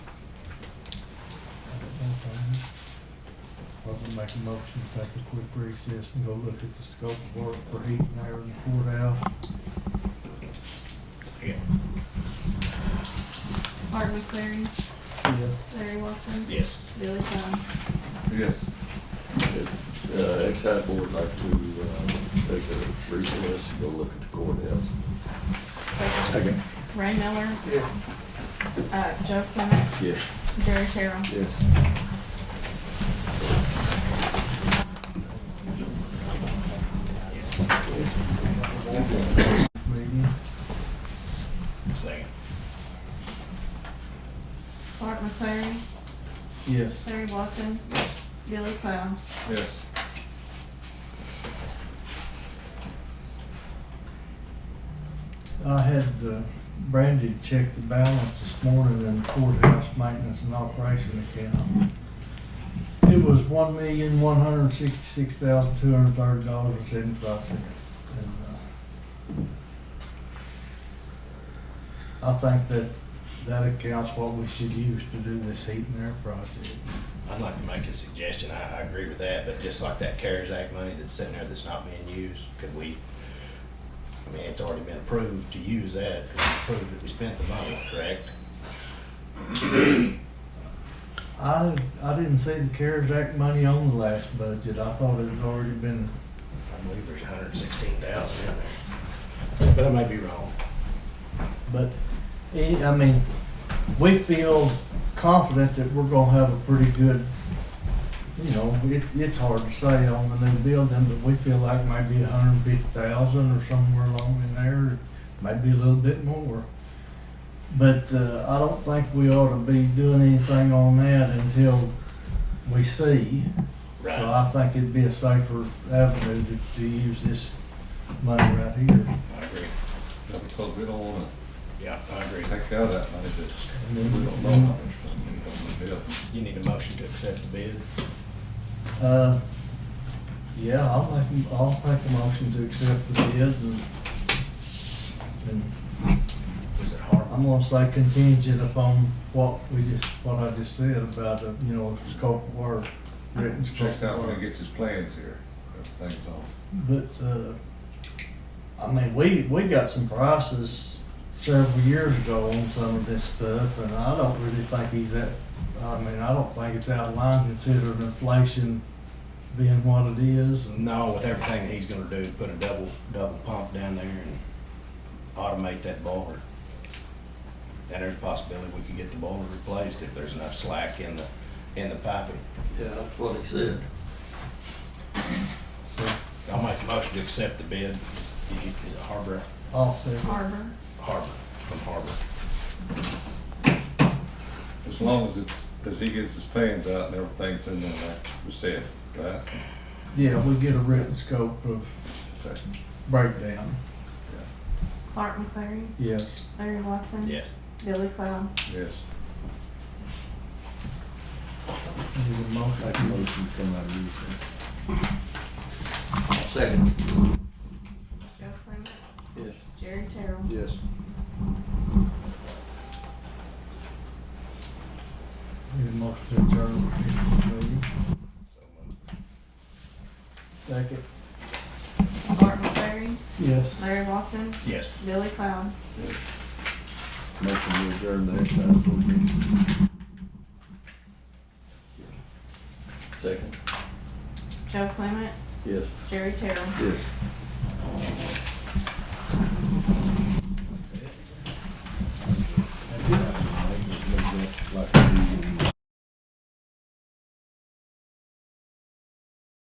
make a motion to take a quick recess and go look at the scope of work for heat and air in the courthouse. Martin McLeary, Yes. Larry Watson, Yes. Billy Dunn. Yes. Uh, Excise Board would like to, uh, take a recess and go look at the courthouse. Second. Ray Miller, Yeah. uh, Joe Clement, Yes. Jerry Carroll. Yes. Meeting. Second. Martin McLeary, Yes. Larry Watson, Billy Cloud. Yes. I had uh, Brandy check the balance this morning in the courthouse maintenance and operation account. It was one million, one hundred and sixty-six thousand, two hundred and thirty dollars and seventy-five cents. uh, I think that that accounts what we should use to do this heat and air project. I'd like to make a suggestion, I, I agree with that, but just like that CARES Act money that's sitting there that's not being used, could we, I mean, it's already been approved to use that, could we prove that we spent the money, correct? I, I didn't see the CARES Act money on the last budget. I thought it had already been I believe there's hundred and sixteen thousand in there, but I may be wrong. But, eh, I mean, we feel confident that we're gonna have a pretty good, you know, it's, it's hard to say on the new building, but we feel like maybe a hundred and fifty thousand or somewhere along in there, maybe a little bit more. But, uh, I don't think we ought to be doing anything on that until we see. So Right. I think it'd be a safer avenue to, to use this money right here. I agree, Yeah, because we don't wanna yeah, I agree. take out that money that And we then- don't know how much money we're gonna build. You need a motion to accept the bid? Uh, yeah, I'll make, I'll make a motion to accept the bid and, and Was it hard? I'm gonna say contingent upon what we just, what I just said about, uh, you know, scope of work, written scope Check out of when work. he gets his plans here, everything's on. But, uh, I mean, we, we got some prices several years ago on some of this stuff, and I don't really think he's that, I mean, I don't think it's out of line considering inflation being what it is and No, with everything that he's gonna do, put a double, double pump down there and automate that boiler. And there's a possibility we could get the boiler replaced if there's enough slack in the, in the piping. Yeah, that's what he said. so I'll make a motion to accept the bid. Is it Harbor, I'll second. Harbor. Harbor, from Harbor? As long as it's, as he gets his plans out and everything's in there, like we said, right? Yeah, we get a written scope of Okay. breakdown, Mark McLeary, yes. Larry Watson. Billy Cloud. Yes, Need a motion? Make a motion to come out of recess. Second. Joe Clement, Yes. Jerry Carroll. Yes. Need a motion to adjourn. Maybe. Second. Martin McLeary, Yes. Larry Watson, Yes. Billy Cloud. Motion to adjourn the excise board meeting. Second. Joe Clement, Yes. Jerry Terrell. Yes. That's it. Like, like, like, like,